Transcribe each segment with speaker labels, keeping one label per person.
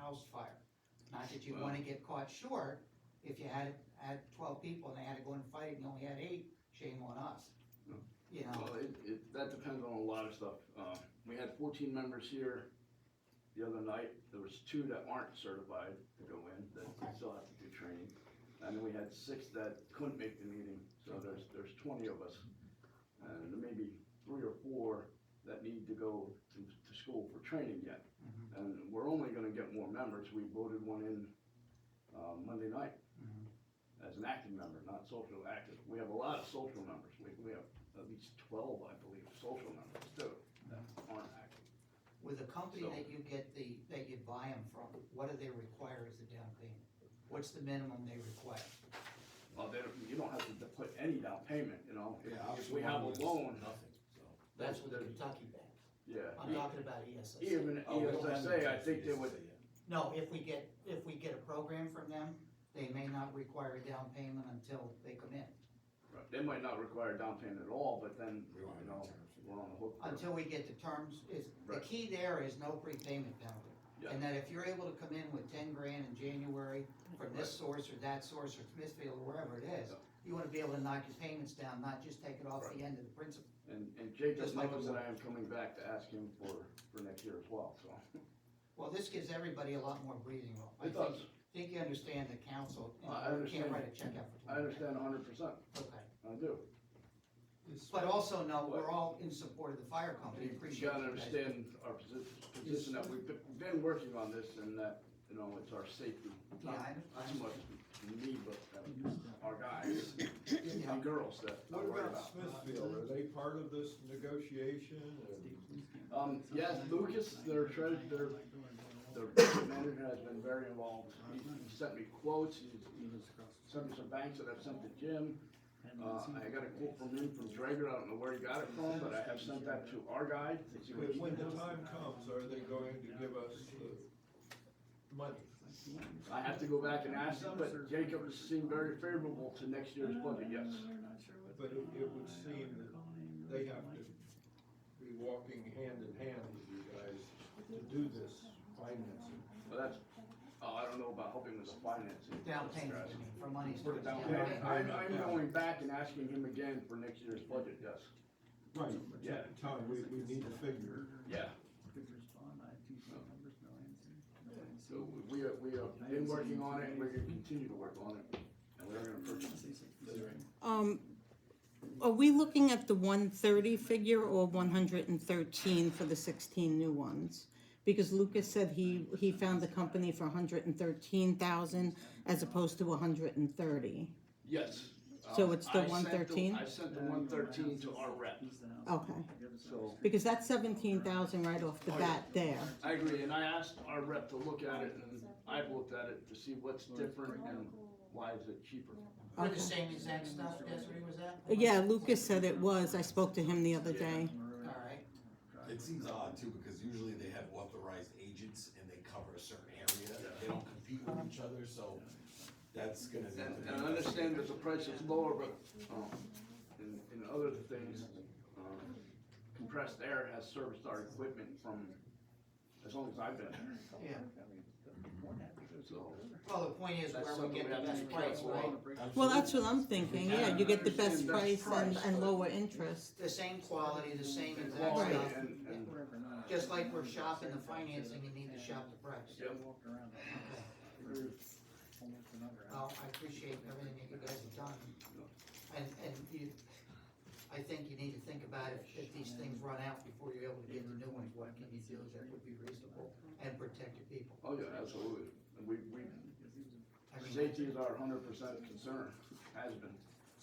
Speaker 1: house fire. Not that you wanna get caught short, if you had, had twelve people and they had to go and fight and you only had eight, shame on us.
Speaker 2: Hmm.
Speaker 1: You know,
Speaker 2: Well, it, it, that depends on a lot of stuff. Um, we had fourteen members here the other night. There was two that aren't certified to go in, that still have to do training. And then we had six that couldn't make the meeting, so there's, there's twenty of us. And there may be three or four that need to go to, to school for training yet.
Speaker 1: mm-hmm.
Speaker 2: And we're only gonna get more members. We voted one in, uh, Monday night
Speaker 1: Mhm.
Speaker 2: as an active member, not social active. We have a lot of social members. We, we have at least twelve, I believe, social members too, that aren't active.
Speaker 1: with the company
Speaker 2: So-
Speaker 1: that you get the, that you buy them from, what do they require as a down payment? What's the minimum they require?
Speaker 2: Well, they, don't- you don't have to put any down payment, you know,
Speaker 3: Yeah, I was
Speaker 2: if we have a
Speaker 3: wondering.
Speaker 2: loan,
Speaker 3: Nothing, so.
Speaker 4: That's with the Kentucky Bank.
Speaker 2: yeah.
Speaker 1: I'm talking about E ESS.
Speaker 2: Even E
Speaker 3: Oh, well, then
Speaker 2: ESSA, I
Speaker 3: it's
Speaker 2: think they would,
Speaker 3: ESSA, yeah.
Speaker 1: No, if we get, if we get a program from them, they may not require a down payment until they come in.
Speaker 2: they might not require down payment at all, but then,
Speaker 3: We want to
Speaker 2: you know, we're on the hook. for it.
Speaker 1: Until we get the terms, is, the
Speaker 2: Right.
Speaker 1: key there is no prepayment penalty.
Speaker 2: Yeah.
Speaker 1: And that if you're able to come in with ten grand in January from this source or that source or Smithfield or wherever it is,
Speaker 2: Yeah.
Speaker 1: you wanna be able to knock your payments down, not just take it off the end of the principal.
Speaker 2: And, and Jake just
Speaker 1: Just like
Speaker 2: knows
Speaker 1: a-
Speaker 2: that I am coming back to ask him for, for next year as well, so.
Speaker 1: Well, this gives everybody a lot more breathing room. I
Speaker 2: It does,
Speaker 1: think, think you understand the council,
Speaker 2: I- I
Speaker 1: and you can't
Speaker 2: understand.
Speaker 1: write a check out for
Speaker 2: I
Speaker 1: twenty grand.
Speaker 2: understand hundred percent,
Speaker 1: Okay,
Speaker 2: I do.
Speaker 1: but also know, we're all
Speaker 2: What?
Speaker 1: in support of the fire company,
Speaker 2: You
Speaker 1: appreciate you
Speaker 2: gotta
Speaker 1: guys.
Speaker 2: understand our position, position that we've been- been working on this and that, you know, it's our safety.
Speaker 1: Yeah, I
Speaker 2: Not not so
Speaker 1: understand.
Speaker 2: much me, but uh, our guys and girls that I
Speaker 1: Oh,
Speaker 5: What
Speaker 2: worry
Speaker 5: about
Speaker 2: about.
Speaker 5: Smithfield? Are they part of this negotiation?
Speaker 2: Um, yes, Lucas, their treasurer, their, their budget manager has been very involved. He he sent me quotes, he he sent me some banks that I've sent to Jim. Uh, I got a quote from him from Drager, I don't know where he got it from, but I have sent that to our guy to see what
Speaker 5: But
Speaker 2: he
Speaker 5: when the time comes, are they going to give us the money?
Speaker 2: I have to go back and ask them, but Jacob has seemed very favorable to next year's budget, yes.
Speaker 5: But it, it would seem that they have to be walking hand in hand with you guys to do this financing.
Speaker 2: But that's, oh, I don't know about helping with the financing.
Speaker 1: Down payment, I mean, for money.
Speaker 2: For the down
Speaker 1: Yeah,
Speaker 2: payment,
Speaker 1: right.
Speaker 2: I'm, I'm going back and asking him again for next year's budget, yes.
Speaker 5: Right,
Speaker 2: Yeah.
Speaker 5: Tom, we, we need a figure.
Speaker 2: Yeah. So we are, we are been working on it, and we're gonna continue to work on it, and we're gonna purchase it.
Speaker 6: Um, are we looking at the one thirty figure or one hundred and thirteen for the sixteen new ones? Because Lucas said he, he found the company for hundred and thirteen thousand as opposed to hundred and thirty.
Speaker 2: Yes.
Speaker 6: So
Speaker 2: Um,
Speaker 6: it's the
Speaker 2: I sent
Speaker 6: 113?
Speaker 2: I sent the one thirteen to our rep,
Speaker 6: Okay,
Speaker 2: so.
Speaker 6: because that's seventeen thousand right off the
Speaker 2: Oh, yeah.
Speaker 6: bat there.
Speaker 2: I agree, and I asked our rep to look at it, and I've looked at it to see what's different and why is it cheaper.
Speaker 1: We're the same exact stuff, Desiree, was that?
Speaker 6: Yeah, Lucas said it was, I spoke to him the other day.
Speaker 1: Alright,
Speaker 3: It seems odd too, because usually they have authorized agents and they cover a certain area, they don't compete with each other, so that's gonna. be-
Speaker 2: And, and I understand that the price is lower, but, um, in, in other things, um, compressed air has serviced our equipment from, as long as I've been there,
Speaker 1: yeah,
Speaker 2: so.
Speaker 1: well, the point is
Speaker 2: that's
Speaker 1: where we
Speaker 2: something
Speaker 1: get
Speaker 2: have
Speaker 1: the
Speaker 2: to
Speaker 1: best
Speaker 2: be
Speaker 1: price,
Speaker 2: careful of.
Speaker 1: right?
Speaker 6: Well, that's what I'm thinking, yeah, you get the best
Speaker 2: Yeah, I understand
Speaker 6: price
Speaker 2: best
Speaker 6: and,
Speaker 2: price,
Speaker 6: and
Speaker 2: but-
Speaker 6: lower interest.
Speaker 1: The same quality, the same exact
Speaker 2: Quality
Speaker 1: stuff,
Speaker 2: and, and,
Speaker 1: just like we're shopping the financing, you need to shop the price.
Speaker 2: yep,
Speaker 1: Well, I appreciate everything that you guys have done, and, and you, I think you need to think about if, if these things run out before you're able to get the new ones, what can you do that would be reasonable and protect your people?
Speaker 2: oh yeah, absolutely, and we, we,
Speaker 1: I mean,
Speaker 2: safety is our hundred percent concern, has been.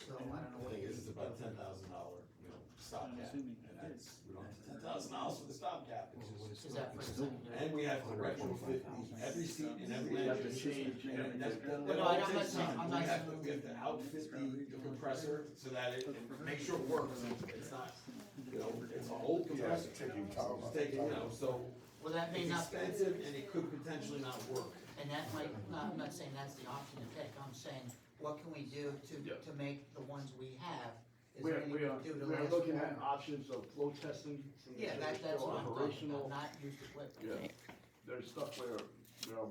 Speaker 1: so I don't know what
Speaker 3: The Thing
Speaker 1: you.
Speaker 3: is, it's about ten thousand dollar, you know, stopgap, and that's, we don't have ten thousand dollars for the stopgap, it's just-
Speaker 1: Is that for a second?
Speaker 3: And we have to retrofit every seat in every.
Speaker 2: We have to change
Speaker 3: And that's- that-
Speaker 1: Well, no,
Speaker 3: that
Speaker 1: I'm
Speaker 3: takes
Speaker 1: not saying-
Speaker 3: time.
Speaker 1: I'm
Speaker 3: We
Speaker 1: not
Speaker 3: have
Speaker 1: saying-
Speaker 3: to- We have to outfit the- the compressor so that it, and make sure it works, it's not, you know, it's an old compressor. It's taking, you know, so
Speaker 1: Well, that may
Speaker 3: it's
Speaker 1: not, and
Speaker 3: expensive and it could potentially not work.
Speaker 1: that might, not, I'm not saying that's the option to take, I'm saying, what can we do to,
Speaker 2: Yeah.
Speaker 1: to make the ones we have? Is
Speaker 2: We
Speaker 1: there
Speaker 2: are,
Speaker 1: anything
Speaker 2: we are,
Speaker 1: do to
Speaker 2: we are
Speaker 1: last
Speaker 2: looking at
Speaker 1: longer?
Speaker 2: options of flow testing. seeing if
Speaker 1: Yeah,
Speaker 2: they're
Speaker 1: that, that's
Speaker 2: still
Speaker 1: what I'm talking about,
Speaker 2: operational.
Speaker 1: not used equipment.
Speaker 2: Yeah, there's stuff where